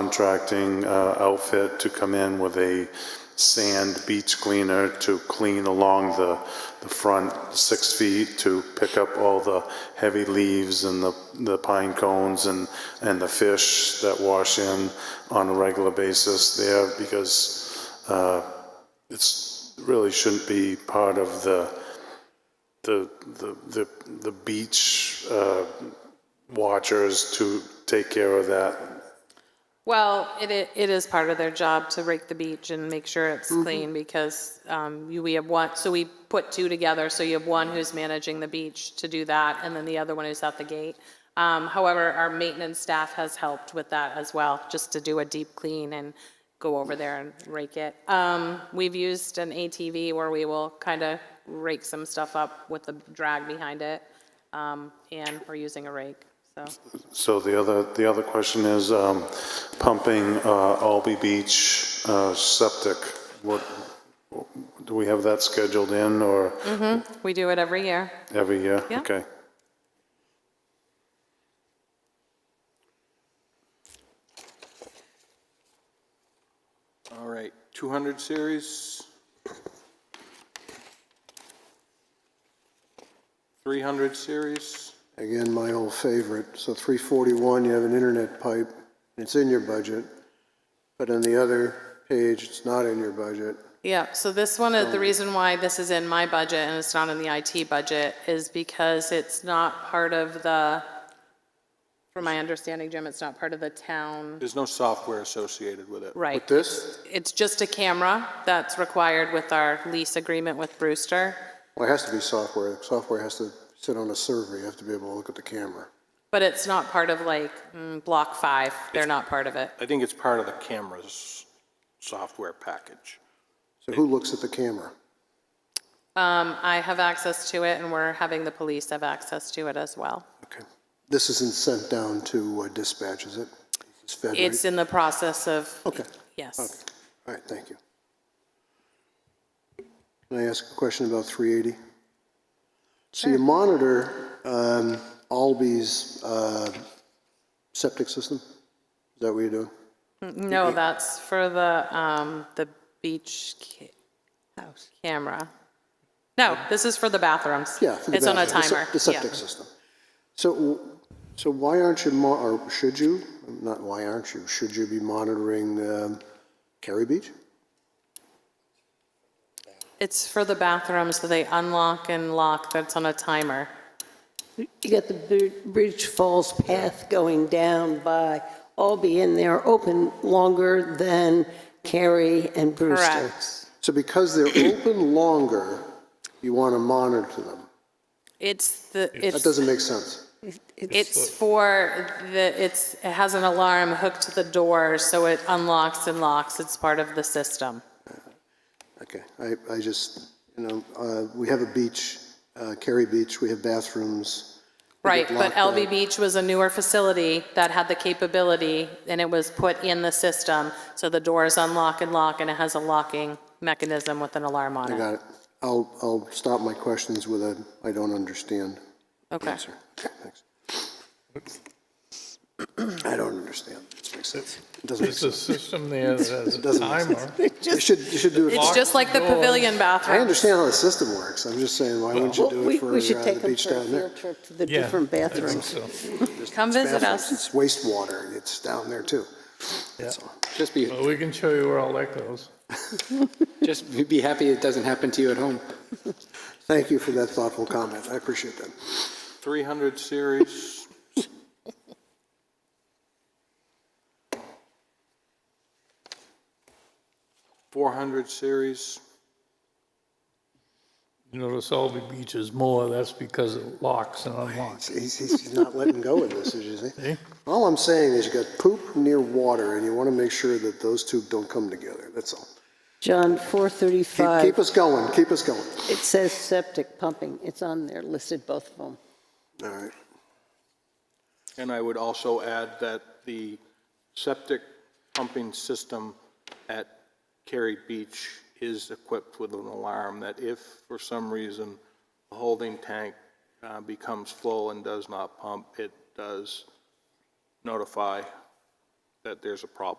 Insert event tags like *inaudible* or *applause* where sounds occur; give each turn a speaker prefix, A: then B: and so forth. A: subcontracting uh, outfit to come in with a sand beach cleaner to clean along the, the front six feet to pick up all the heavy leaves and the, the pine cones and, and the fish that wash in on a regular basis there because uh, it's, really shouldn't be part of the, the, the, the, the beach uh, watchers to take care of that
B: Well, it, i- it is part of their job to rake the beach and make sure it's clean because um, you- we have one, so we put two together. So you have one who's managing the beach to do that and then the other one who's at the gate. Um, However, our maintenance staff has helped with that as well, just to do a deep clean and go over there and rake it. Um, We've used an ATV where we will kind of rake some stuff up with the drag behind it. um, And we're using a rake, so.
A: So the other, the other question is um, pumping uh, Albee Beach uh, septic. What, do we have that scheduled in or
B: We do it every year.
A: every year?
B: Yeah.
A: Okay.
C: All right, 200 series. 300 series.
D: Again, my old favorite. So 341, you have an internet pipe, and it's in your budget, but on the other page, it's not in your budget.
B: Yeah, so this one, is the reason why this is in my budget and it's not in the IT budget is because it's not part of the, from my understanding, Jim, it's not part of the town.
C: There's no software associated with it.
B: Right.
D: This,
B: It's just a camera that's required with our lease agreement with Brewster.
D: well, it has to be software. Software has to sit on a server. You have to be able to look at the camera.
B: But it's not part of like mm, Block 5. They're not part of it.
C: I think it's part of the camera's software package.
D: So who looks at the camera?
B: Um, I have access to it and we're having the police have access to it as well.
D: Okay. This isn't sent down to uh, dispatch, is it? It's fed, right?
B: It's in the process of,
D: Okay,
B: yes.
D: all right, thank you. Can I ask a question about 380? So you monitor um, Albee's uh, septic system? Is that what you're doing?
B: No, that's for the, um, the beach ca- camera. No, this is for the bathrooms.
D: Yeah. for the
B: It's on a
D: bathroom, the
B: timer.
D: se- The
B: Yeah.
D: septic system. So, w- so why aren't you, mo- or should you, not why aren't you, should you be monitoring um, Kerry Beach?
B: It's for the bathrooms, so they unlock and lock, that's on a timer.
E: You got the Bri- Bridge Falls path going down by Albee, and they're open longer than Cary and Brewster.
B: Correct.
D: So because they're open longer, you want to monitor them.
B: It's the,
D: That
B: it's,
D: doesn't make sense.
B: it's for the, it's, it has an alarm hooked to the door, so it unlocks and locks. It's part of the system.
D: Okay, I, I just, you know, uh, we have a beach, uh, Cary Beach, we have bathrooms.
B: Right, but
D: locked
B: LB Beach was a newer facility that had the capability, and it was put in the system, so the doors unlock and lock, and it has a locking mechanism with an alarm on
D: I
B: it.
D: got it. I'll, I'll stop my questions with a, I don't understand
B: Okay.
D: answer. Okay, thanks. I don't understand. Makes sense. It doesn't make
F: There's a
D: sense.
F: system there that
C: *laughs*
F: has a
D: Doesn't make
F: timer.
D: You should, you should do it.
B: It's just like the pavilion
D: I
B: bathroom.
D: understand how the system works. I'm just saying, why wouldn't you
E: Well,
D: do
E: we-
D: it for
E: We should
D: uh,
E: take
D: the
E: them
D: beach
E: for a
D: down there?
E: field trip to the
F: Yeah,
E: different
F: I think
E: bathrooms.
F: so.
B: Come visit
D: Bathrooms,
B: us.
D: It's wastewater. It's down there too. That's all. Just be,
F: Well, we can show you where all that goes.
G: Just be happy it doesn't happen to you at home.
D: thank you for that thoughtful comment. I appreciate that.
C: 300 series. Four hundred series,
F: You notice Albee Beach is more, that's because it locks and unlocks.
D: He's, he's he's not letting go of this, as you see.
F: See?
D: All I'm saying is you got poop near water, and you want to make sure that those two don't come together, that's all.
E: John,
D: Keep, keep
E: 435,
D: us going, keep us going.
E: it says septic pumping. It's on there, listed both of them.
D: All right.
C: and I would also add that the septic pumping system at Cary Beach is equipped with an alarm that if, for some reason, the holding tank uh, becomes full and does not pump, it does notify that there's a problem.